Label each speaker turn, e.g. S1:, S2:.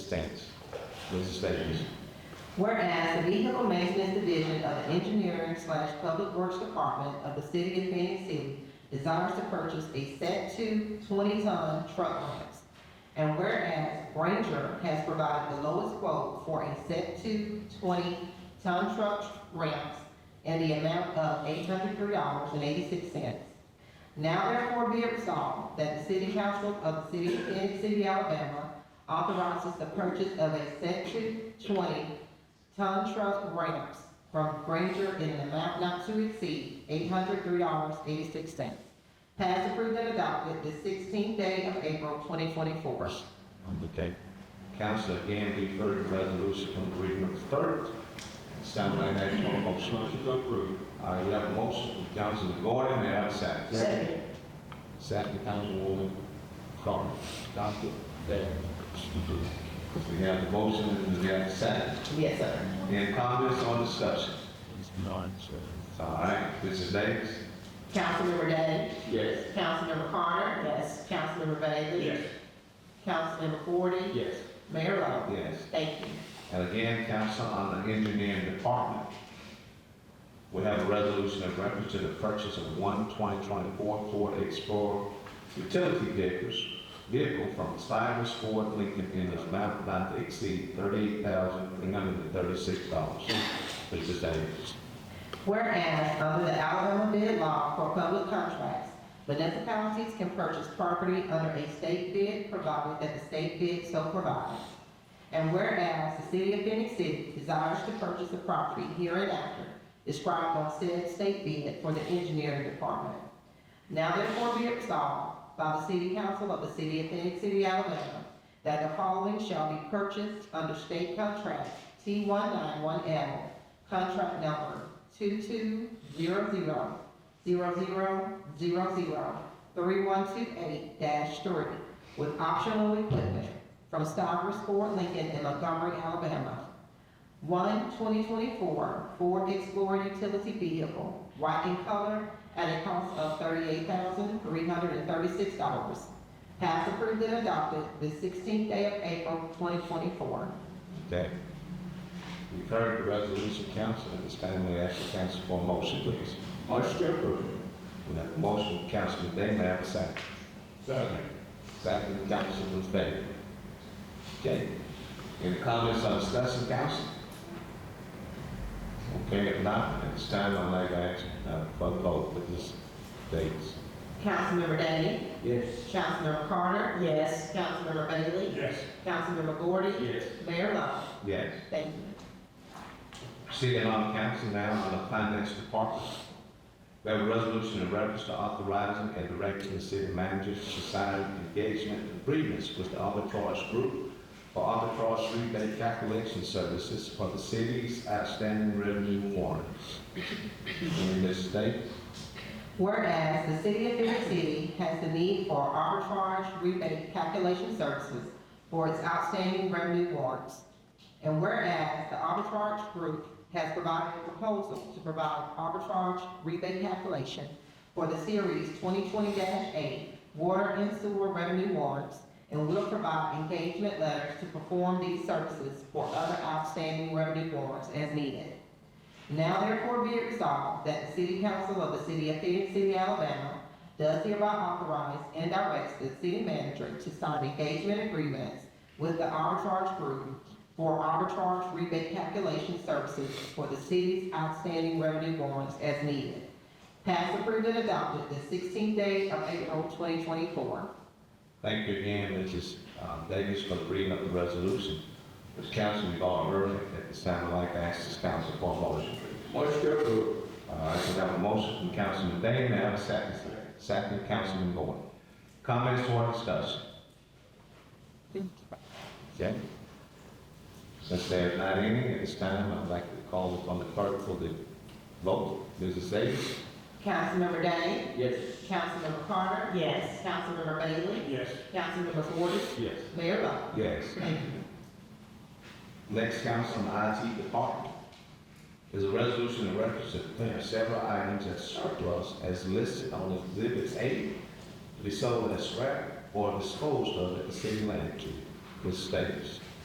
S1: stance. Mrs. Stevens.
S2: Whereas the Vehicle Maintenance Division of the Engineering slash Public Works Department of the City of Phoenix City desires to purchase a set two 20-ton truck lengths. And whereas Granger has provided the lowest quote for a set two 20-ton truck ramps in the amount of $803.86. Now therefore be it resolved that the City Council of the City of Kansas City, Alabama authorizes the purchase of a section twenty ton truck ramps from Granger in an amount not to exceed eight hundred three dollars eighty-six cents. Passed, approved, and adopted the sixteenth day of April twenty twenty-four.
S1: Okay. Council again be heard resolution on reading of third. Sound like that, your motion.
S3: Motion to approve.
S1: I have a motion from Councilman Gordon, may I have a second?
S4: Second.
S1: Second, Councilwoman Carter. Doctor, there. We have the motion and we have the second.
S2: Yes, sir.
S1: Any comments or discussion?
S3: None, sir.
S1: All right, Mrs. Davis?
S2: Councilmember Day?
S3: Yes.
S2: Councilmember Carter?
S4: Yes.
S2: Councilmember Bailey?
S3: Yes.
S2: Councilmember Gordon?
S3: Yes.
S2: Mayor Lo?
S1: Yes.
S2: Thank you.
S1: And again, council on the engineering department. We have a resolution in reference to the purchase of one 2024 Ford Explorer utility vehicles, vehicle from Cyrus Ford Lincoln in an amount not to exceed $38,336. Mrs. Davis.
S2: Whereas under the Alabama bid law for public contracts, municipalities can purchase property under a state bid provided that the state bid so provides. And whereas the city of Phoenix City desires to purchase the property hereinafter described on said state bid for the engineering department. Now therefore be it resolved by the city council of the city of Phoenix City, Alabama, that the following shall be purchased under state contract T one nine one L, contract number two two zero zero zero zero zero zero three one two eight three, with optional equipment from Stivers Ford Lincoln in Montgomery, Alabama. One 2024 Ford Explorer utility vehicle, white in color, at a cost of $38,336. Passed, approved, and adopted the 16th day of April 2024.
S1: Okay. We've heard the resolution, council, at this time we ask the council for a motion, please.
S3: Motion to approve.
S1: We have a motion from Councilman Day, may I have a second?
S3: Second.
S1: Second, Councilman Bailey. Okay, any comments on discussion, council? Okay, if not, at this time, I'd like to ask uh, for the vote for this dates.
S2: Councilmember Day?
S3: Yes.
S2: Councilmember Carter?
S4: Yes.
S2: Councilmember Bailey?
S3: Yes.
S2: Councilmember Gordy?
S3: Yes.
S2: Mayor Lo?
S1: Yes.
S2: Thank you.
S1: City and Law Council now on the Finance Department. We have a resolution in reference to authorizing and directing the city manager to sign engagement agreements with the Arbitrage Group for arbitrage rebate calculation services for the city's outstanding revenue warrants. In this state,
S2: Whereas the city of Phoenix City has the need for arbitrage rebate calculation services for its outstanding revenue warrants. And whereas the arbitrage group has provided a proposal to provide arbitrage rebate calculation for the series 2020-8 water and sewer revenue warrants and will provide engagement letters to perform these services for other outstanding revenue warrants as needed. Now therefore be it resolved that the City Council of the City of Phoenix City, Alabama does hereby authorize and directs the city manager to sign engagement agreements with the arbitrage group for arbitrage rebate calculation services for the city's outstanding revenue warrants as needed. Passed, approved, and adopted the 16th day of April 2024.
S1: thank you again, Mrs. uh, Davis, for reading up the resolution. This council, we've all heard it. At this time, I'd like to ask this council for a motion.
S3: Motion to approve.
S1: All right, so we have a motion from Councilman Day, may I have a second? Second, Councilman Gordon. Comments or discussion? Okay. Since there's not any at this time, I'd like to call upon the clerk for the vote. Mrs. Davis?
S2: Councilmember Day?
S3: Yes.
S2: Councilmember Carter?
S4: Yes.
S2: Councilmember Bailey?
S3: Yes.
S2: Councilmember Gordon?
S3: Yes.
S2: Mayor Lo?
S1: Yes. Next, Council on IT Department. Is a resolution in reference to declare several items as surplus as listed on Exhibit A to be sold as scrap or disposed of at the city landfill. Ms. Davis.